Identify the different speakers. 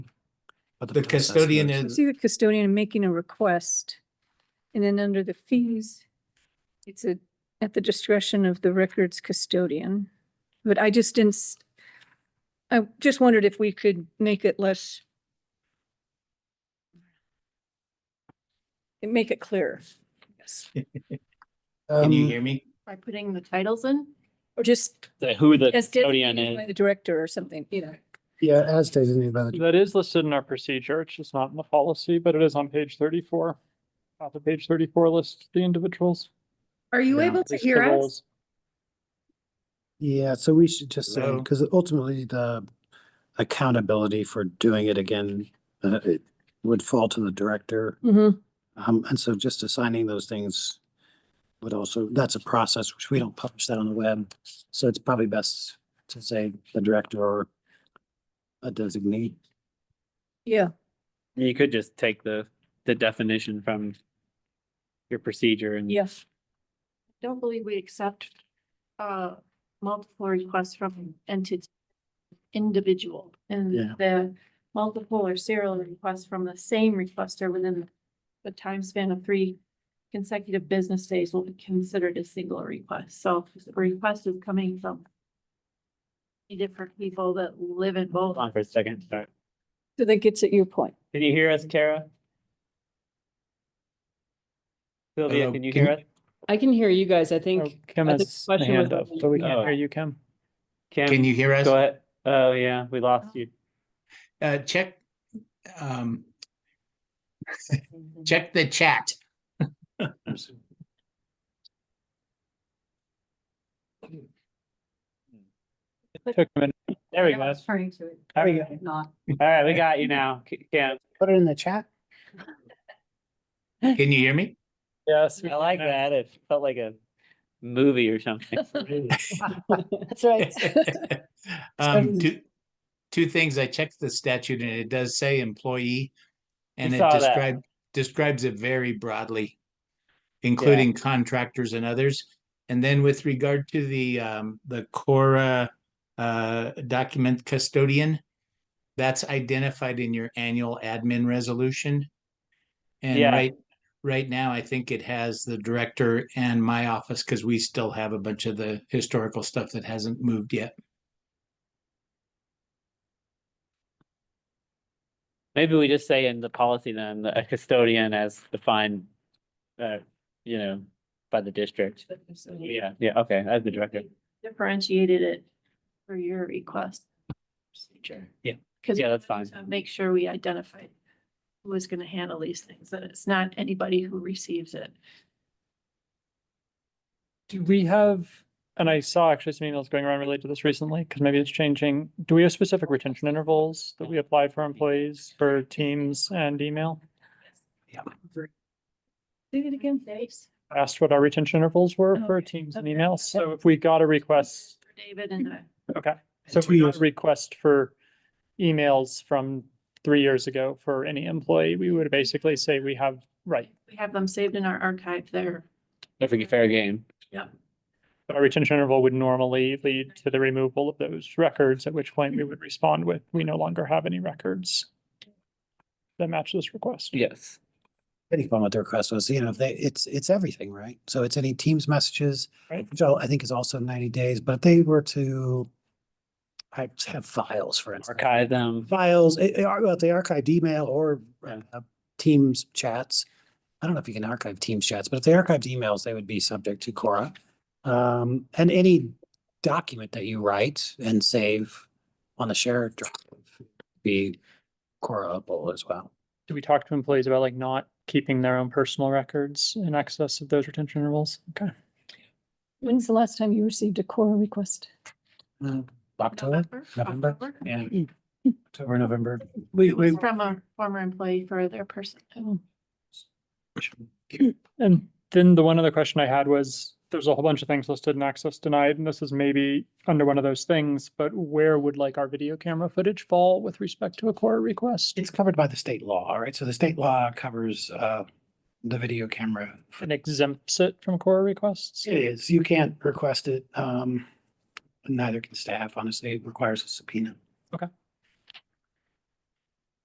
Speaker 1: but
Speaker 2: The
Speaker 1: process
Speaker 2: custodian
Speaker 1: moves.
Speaker 2: is-
Speaker 3: I see the custodian making a request. And then under the fees, it's a, at the discretion of the records custodian. But I just didn't, s- I just wondered if we could make it less. and Make it clearer, yes,
Speaker 2: Can you
Speaker 1: Um,
Speaker 2: hear me?
Speaker 4: By putting the titles in?
Speaker 3: or just
Speaker 5: the- who the
Speaker 3: as
Speaker 5: custodian
Speaker 3: designated by
Speaker 5: is.
Speaker 3: the director or something, you know.
Speaker 1: Yeah, as designated by the,
Speaker 6: That is listed in our procedure. It's just not in the policy, but it is on page thirty-four. Off of page thirty-four lists the individuals.
Speaker 4: Are you
Speaker 1: Yeah,
Speaker 4: able to
Speaker 6: lists the
Speaker 4: hear us?
Speaker 6: roles.
Speaker 1: yeah, so we should just say,
Speaker 2: Hello?
Speaker 1: because ultimately the accountability for doing it again, uh, it would fall to the director.
Speaker 3: Mhm.
Speaker 1: Um, and so just assigning those things would also, that's a process, which we don't publish that on the web. So it's probably best to say the director or a designee.
Speaker 3: Yeah,
Speaker 5: You could just take the, the definition from your procedure and.
Speaker 3: yeah.
Speaker 4: Don't believe we accept uh multiple requests from entity individual and
Speaker 1: Yeah.
Speaker 4: the multiple or serial requests from the same requester within the time span of three consecutive business days will be considered a single request. So if the request is coming from different people that live in both.
Speaker 5: Hold on for a second. Sorry.
Speaker 3: So that gets at your point.
Speaker 5: Can you hear us, Kara? Sylvia,
Speaker 2: Hello,
Speaker 5: can you
Speaker 2: can
Speaker 5: hear
Speaker 2: you-
Speaker 5: us?
Speaker 7: I can hear you guys. I
Speaker 6: Oh,
Speaker 7: think.
Speaker 6: Kim
Speaker 7: I think
Speaker 6: has
Speaker 7: the
Speaker 6: a
Speaker 7: question
Speaker 6: hand
Speaker 7: was
Speaker 6: up, but we can't
Speaker 5: Oh.
Speaker 6: hear you, Kim.
Speaker 2: Can
Speaker 5: Kim,
Speaker 2: you hear us?
Speaker 5: go ahead. Oh, yeah, we lost you.
Speaker 2: Uh, check, um, check the chat.
Speaker 6: It Took a minute.
Speaker 5: There we go.
Speaker 4: Turning to it,
Speaker 5: There we go.
Speaker 4: not.
Speaker 5: All right, we got you now, K- Kim.
Speaker 1: Put it in the chat.
Speaker 2: Can you hear me?
Speaker 6: Yes.
Speaker 5: I like that. It felt like a movie or something.
Speaker 7: That's right.
Speaker 2: Um, two, two things. I checked the statute and it does say employee. And it
Speaker 5: saw that.
Speaker 2: describes, describes it very broadly, including contractors and others. And then with regard to the, um, the Cora, uh, document custodian, that's identified in your annual admin resolution. And
Speaker 5: Yeah.
Speaker 2: right, right now, I think it has the director and my office, because we still have a bunch of the historical stuff that hasn't moved yet.
Speaker 5: Maybe we just say in the policy then, the- a custodian as defined, uh, you know, by the district. Yeah, yeah, okay, as the director.
Speaker 4: Differentiated it for your request. procedure.
Speaker 5: Yeah.
Speaker 4: Because.
Speaker 5: Yeah, that's fine.
Speaker 4: Make sure we identify who is gonna handle these things, that it's not anybody who receives it.
Speaker 6: Do we have, and I saw actually some emails going around related to this recently, because maybe it's changing. Do we have specific retention intervals that we apply for employees for Teams and email?
Speaker 4: Do it again, thanks.
Speaker 6: I Asked what our retention intervals were
Speaker 4: Oh,
Speaker 6: for
Speaker 4: okay.
Speaker 6: Teams and
Speaker 4: Okay.
Speaker 6: email. So if we got a request,
Speaker 4: David and I.
Speaker 6: okay. So if we got a request for emails from three years ago for any employee, we would basically say we have, right,
Speaker 4: We have them saved in our archive there.
Speaker 5: Don't forget fair game.
Speaker 6: But our retention interval would normally lead to the removal of those records, at which point we would respond with, we no longer have any records that match this request.
Speaker 5: Yes.
Speaker 1: Depending upon what the request was, you know, if they, it's, it's everything, right? So it's any Teams messages,
Speaker 6: Right.
Speaker 1: which I'll- I think is also ninety days, but if they were to I have files, for instance,
Speaker 5: Archive them.
Speaker 1: files, eh, eh, ar- well, they archived email or
Speaker 5: Yeah.
Speaker 1: uh, Teams chats. I don't know if you can archive Teams chats, but if they archived emails, they would be subject to Cora. Um, and any document that you write and save on the shared drive would be Coraable as well.
Speaker 6: Do we talk to employees about like not keeping their own personal records in excess of those retention intervals? Okay.
Speaker 3: When's the last time you received a core request?
Speaker 5: Mm.
Speaker 1: Uh, October, November? Mm. Yeah. October, November. We, we,
Speaker 4: From a former employee for their person.
Speaker 6: And then the one other question I had was, there's a whole bunch of things listed in access denied, and this is maybe under one of those things, but where would like our video camera footage fall with respect to a core request?
Speaker 1: it's covered by the state law, all right? So the state law covers, uh, the video camera. for-
Speaker 6: And exempts it from core requests?
Speaker 1: It is, you can't request it, um, neither can staff, honestly, it requires a subpoena.
Speaker 6: Okay.